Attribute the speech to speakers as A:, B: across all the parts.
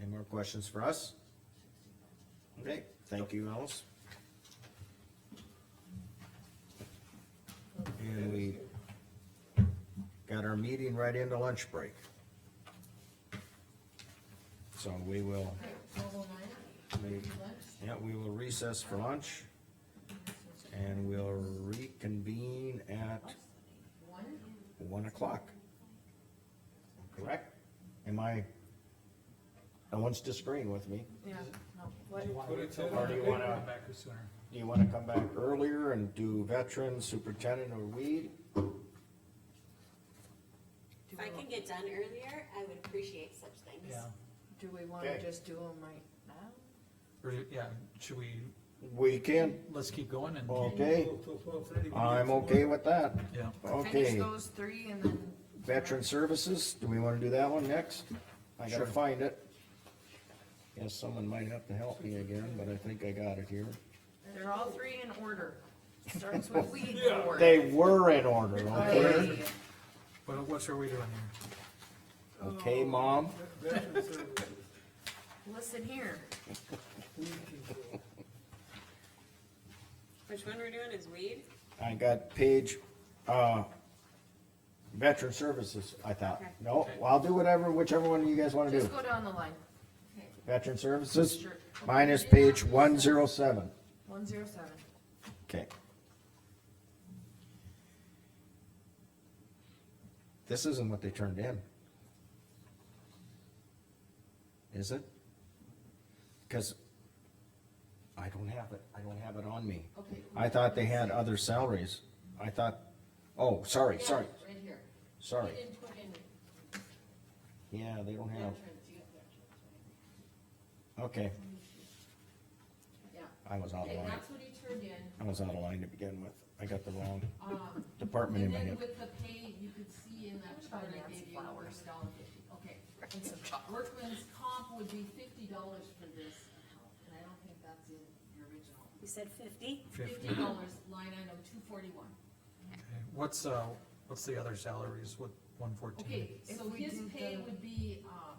A: Any more questions for us? Okay, thank you, Alice. And we got our meeting right into lunch break. So we will,
B: Mobile lineup,
A: we-
B: lunch,
A: yeah, we will recess for lunch and we'll reconvene at
B: one,
A: one o'clock. Correct? Am I, no one's disagreeing with me.
B: yeah, no,
C: Do you
B: what,
C: want to wait till
A: Or do you wanna-
C: come back or sooner?
A: Do you wanna come back earlier and do veteran, superintendent, or weed?
B: do
D: If I can
B: we,
D: get done earlier, I would appreciate such things.
C: Yeah,
B: do we wanna
A: Okay.
B: just do them right now?
C: or, yeah, should we,
A: We can,
C: let's keep going and,
A: okay, I'm okay with that.
C: yeah,
B: Finish
A: Okay,
B: those three and then.
A: veteran services, do we wanna do that one next? I gotta
C: Sure.
A: find it. Guess someone might have to help me again, but I think I got it here.
B: They're all three in order, starts with weed board.
A: They were in order, okay?
B: Alrighty.
C: what, what are we doing here?
A: Okay, mom?
B: Listen here,
D: Which one we're doing is weed?
A: I got page, uh, veteran services, I thought.
D: Okay.
A: No, well, I'll do whatever, whichever one you guys wanna do.
B: just go down the line,
A: Veteran services,
B: Sure.
A: minus page one zero seven.
B: one zero seven,
A: Okay. This isn't what they turned in. Is it? Cause I don't have it, I don't have it on me.
B: okay.
A: I thought they had other salaries. I thought, oh, sorry, sorry,
B: Right here.
A: sorry.
B: You didn't put in
A: Yeah, they don't have,
B: veterans, you got veterans,
A: okay,
B: right? Yeah,
A: I was out of
B: okay,
A: line.
B: that's what he turned in,
A: I was out of line to begin with. I got the wrong
B: um,
A: department in
B: And
A: my
B: then
A: head.
B: with the pay, you could see in that chart I gave you, it was dollar fifty, okay. And so workman's comp would be fifty dollars for this account, and I don't think that's in your original.
D: You said fifty?
C: Fifty,
B: Fifty dollars, line item two forty-one.
C: okay, what's, uh, what's the other salaries, what, one fourteen?
B: Okay,
E: If
B: so
E: we
B: his
E: do
B: pay
E: the-
B: would be, um,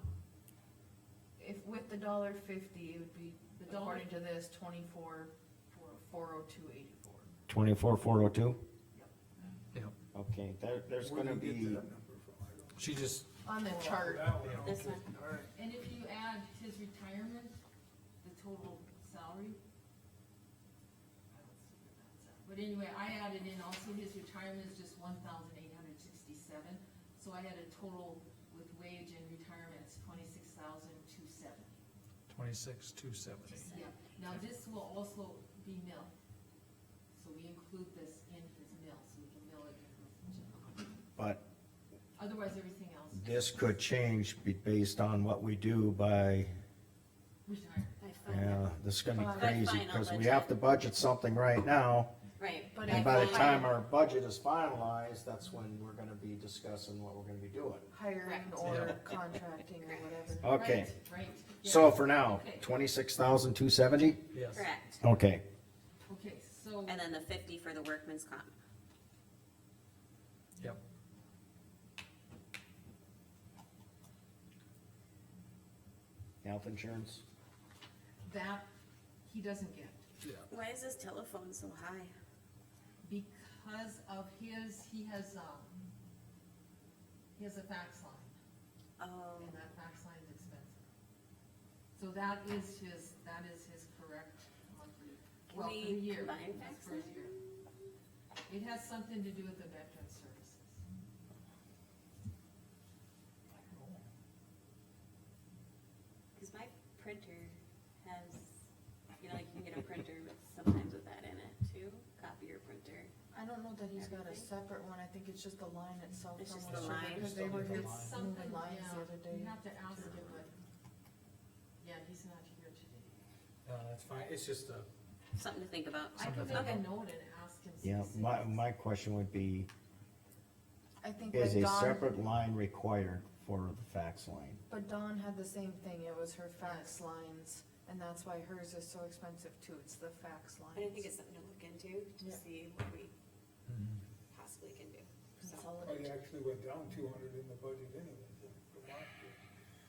E: If with the dollar fifty, it would be,
B: The dollar-
E: according to this, twenty-four, four oh two eighty-four.
A: Twenty-four, four oh two?
C: Yeah,
A: Okay, there, there's gonna be,
C: she just,
E: On the chart,
D: This one?
B: and if you add his retirement, the total salary. I don't see where that's at. But anyway, I added in also his retirement is just one thousand eight hundred sixty-seven, so I had a total with wage and retirement, it's twenty-six thousand two seventy.
C: twenty-six, two seventy.
B: Yeah, now this will also be mill, so we include this in his mill, so we can mill it in his general.
A: but
B: Otherwise, everything else,
A: this could change be based on what we do by,
B: retirement.
D: By
A: yeah,
D: final.
A: this is gonna be
D: By
A: crazy,
D: final
A: cause we
D: budget.
A: have to budget something right now.
D: Right.
E: But
A: And by the
D: final.
A: time our budget is finalized, that's when we're gonna be discussing what we're gonna be doing.
E: hiring or contracting or whatever.
A: Okay,
B: Right, right, yeah.
A: so for now,
B: Okay.
A: twenty-six thousand, two seventy?
C: Yes,
D: Correct.
A: Okay,
B: Okay, so,
D: And then the fifty for the workman's comp.
C: yep,
A: health insurance,
B: that, he doesn't get,
C: yeah,
D: Why is this telephone so high?
B: because of his, he has, um, he has a fax line,
D: Oh,
B: and that fax line is expensive. So that is his, that is his correct monthly, well, for the
D: We
B: year.
D: combine fax
B: that's for his
D: line?
B: year. It has something to do with the veteran services.
D: cause my printer has, you know, like you can get a printer with, sometimes with that in it too, copier printer.
E: I don't know that he's got a separate one, I think it's just the line itself.
D: It's
E: from
D: just
E: what
D: the
E: she did,
D: line.
E: Cause they were
C: It's
E: here
C: line.
B: It's something,
E: moving lines the other
B: yeah,
E: day.
B: you have to ask him, but, yeah, he's not here today.
C: no, that's fine, it's just a.
D: Something to think about.
B: I could make a note and ask him.
A: yeah, my,
B: specifics.
A: my question would be,
E: I think
A: is
E: that
A: a
E: Dawn,
A: separate line required for the fax line?
E: but Dawn had the same thing, it was her fax lines, and that's why hers is so expensive too, it's the fax lines.
D: But I think it's something to look into, to
B: Yeah.
D: see what we
C: Mm-hmm.
D: possibly can do. So,
E: Consolidate.
F: It actually went down two hundred in the budget anyways.